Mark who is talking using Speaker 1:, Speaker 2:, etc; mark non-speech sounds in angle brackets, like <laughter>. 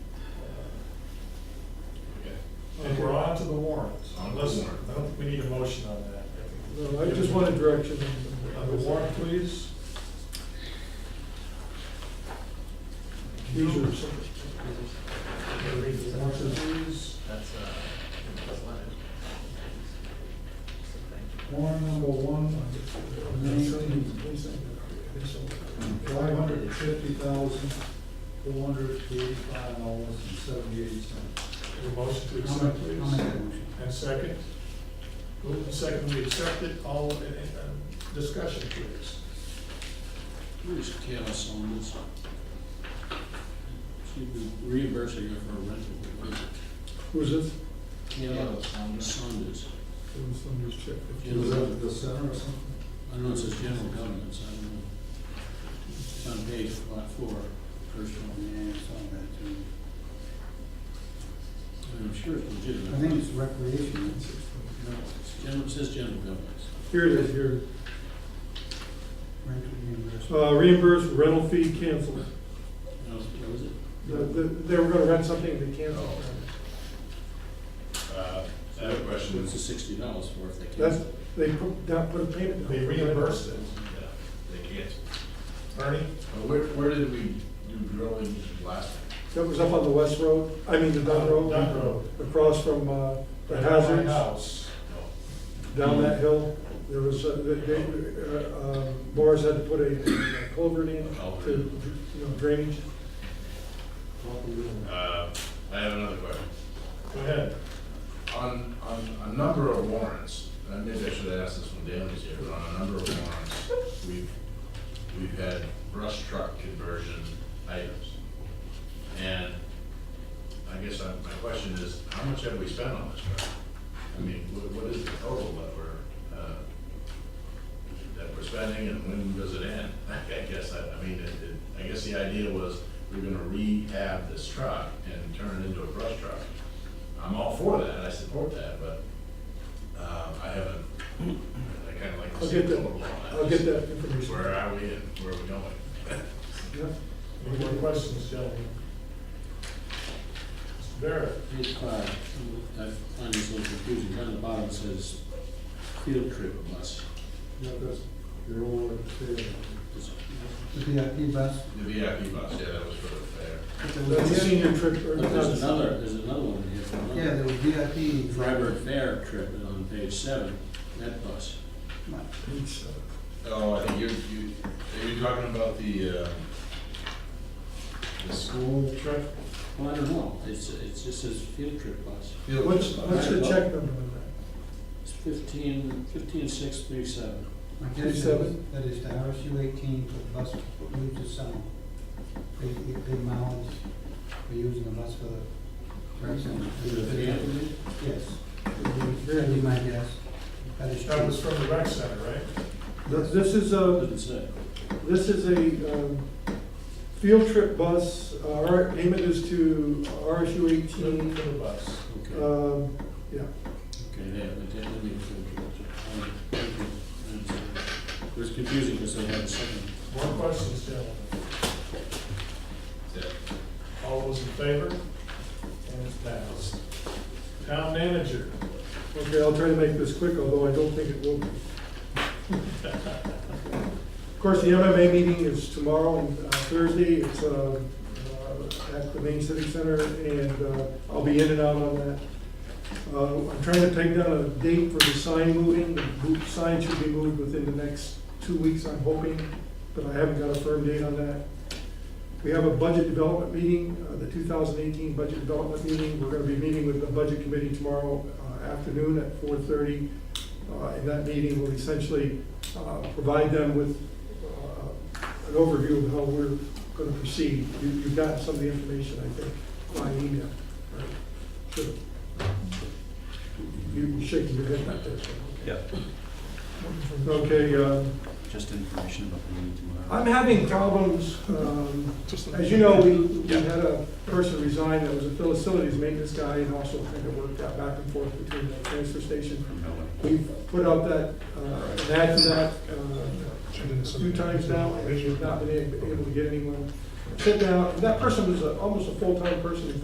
Speaker 1: the warrants.
Speaker 2: Unless, I don't think we need a motion on that. think-
Speaker 1: No, I just wanted direction.
Speaker 2: On the warrant, please.
Speaker 1: These are-
Speaker 2: Read the warrant, please.
Speaker 3: That's, uh, that's one. So thank you.
Speaker 1: Warrant number one, five hundred and fifty thousand, four hundred and eighty-five dollars and seventy-eight cents.
Speaker 2: A motion to accept, please. And second. Move and second, we accept it, all, and, and, uh, discussion, please.
Speaker 4: Where's Taylor's on this? She's reimbursing her for a rental.
Speaker 1: Who's it?
Speaker 4: Taylor Saunders.
Speaker 1: Was that at the center or something?
Speaker 4: I don't know, it says general governments, I don't know. It's on page lot four, first one.
Speaker 5: Yeah, it's on that too.
Speaker 4: I'm sure it's legitimate.
Speaker 5: I think it's recreation.
Speaker 4: No, it's general, it says general governments.
Speaker 6: Here it is, here.
Speaker 5: Rental reimbursement.
Speaker 6: Uh, reimburse rental fee canceled.
Speaker 4: No, what was it?
Speaker 6: The- the- They were gonna rent something, they canceled.
Speaker 2: Oh,
Speaker 7: Uh, I have a question.
Speaker 4: What's the sixty dollars for if they can't?
Speaker 6: That's, they put, down put a payment down.
Speaker 2: They reimbursed it.
Speaker 7: Yeah, They can't.
Speaker 2: Ernie?
Speaker 7: Uh, Where, where did we do drilling last?
Speaker 6: That was up on the west road, I mean, the Dunn Road.
Speaker 2: Dunn Road.
Speaker 6: Across from, uh, the
Speaker 2: Right on my
Speaker 6: hazards,
Speaker 2: House.
Speaker 7: No.
Speaker 6: down that hill. There was, uh, they, they, uh, uh, Morris had to put a culvert in
Speaker 2: Oh.
Speaker 6: to, you know, drainage.
Speaker 7: Uh, I have another question.
Speaker 2: Go ahead.
Speaker 7: On, on a number of warrants, and maybe I should have asked this when Dan was here, but on a number of warrants, we've, we've had brush truck conversion items. And I guess I- my question is, how much have we spent on this truck? I mean, what, what is the total that we're, uh, that we're spending and when does it end? <laughs> I guess, I, I mean, it, it, I guess the idea was we're gonna rehab this truck and turn it into a brush truck. I'm all for that, I support that, but, um, I haven't, I kinda like to
Speaker 6: I'll
Speaker 7: see a
Speaker 6: get
Speaker 7: total on
Speaker 6: that,
Speaker 7: that.
Speaker 6: I'll get that information.
Speaker 7: Where are we and where are we going?
Speaker 6: Yeah.
Speaker 2: Any more questions, gentlemen? Mr. Barrett?
Speaker 4: Page five, I find this a little confusing, down at the bottom it says field trip bus.
Speaker 1: Not this, your old,
Speaker 4: Does it-
Speaker 5: The VIP bus,
Speaker 7: The VIP bus, yeah, that was for the fair.
Speaker 6: That's a senior trip, or
Speaker 4: But
Speaker 6: not,
Speaker 4: there's another, there's another one here. for another-
Speaker 5: yeah, there was VIP.
Speaker 4: Freiburg Fair trip on page seven, that bus.
Speaker 6: it's, uh,
Speaker 7: Oh, I think you're, you, are you talking about the, uh, the school trip?
Speaker 4: Well, I don't know, it's, it's just says field trip bus.
Speaker 7: Field
Speaker 6: What's,
Speaker 7: trip bus.
Speaker 6: what's the check number on that?
Speaker 4: It's fifteen, fifteen six three seven.
Speaker 5: I guess it is-
Speaker 6: 37.
Speaker 5: that is the RSU eighteen for the bus route to Summit. They, they pay mileage for using the bus for the. race and-
Speaker 4: Is it a van?
Speaker 5: Yes, that'd be my guess. That is
Speaker 2: That was
Speaker 5: true.
Speaker 2: from the rec center, right?
Speaker 6: This this is a,
Speaker 4: Doesn't say.
Speaker 6: this is a um, field trip bus, Uh, our payment is to RSU
Speaker 2: For the-
Speaker 6: eighteen.
Speaker 2: for the bus.
Speaker 4: Okay,
Speaker 6: Um, Yeah,
Speaker 4: okay, they have, they have a field trip. bus. I don't know. It was confusing because they had a second.
Speaker 2: More questions, gentlemen?
Speaker 7: That's it.
Speaker 2: All those in favor? And it's passed. Town manager,
Speaker 6: okay, I'll try to make this quick, although I don't think it will be. Of course, the MMA meeting is tomorrow and uh, Thursday, it's um, uh, at the Main Civic Center, and uh, I'll be in and out on that. Uh, I'm trying to peg down a date for the sign moving, the mo- sign should be moved within the next two weeks, I'm hoping, but I haven't got a firm date on that. We have a budget development meeting, uh, the two thousand eighteen budget development meeting, we're gonna be meeting with the budget committee tomorrow uh, afternoon at four thirty. Uh, In that meeting, we'll essentially uh, provide them with uh, an overview of how we're gonna proceed. You- You've got some of the information, I think, by email. right? Sure. You you shaking your head like this.
Speaker 8: Yep.
Speaker 6: Okay, uh,
Speaker 8: Just information about the meeting tomorrow.
Speaker 6: I'm having problems, um, as you know, we, we had a person resign that was a facilities maintenance guy and also kind of worked out back and forth between the transfer station.
Speaker 8: From Melanie.
Speaker 6: We've put out that, uh, an ad for that, uh, a few times now, and we've not been able able to get anyone. Sit down, that person was a- almost a full-time person, in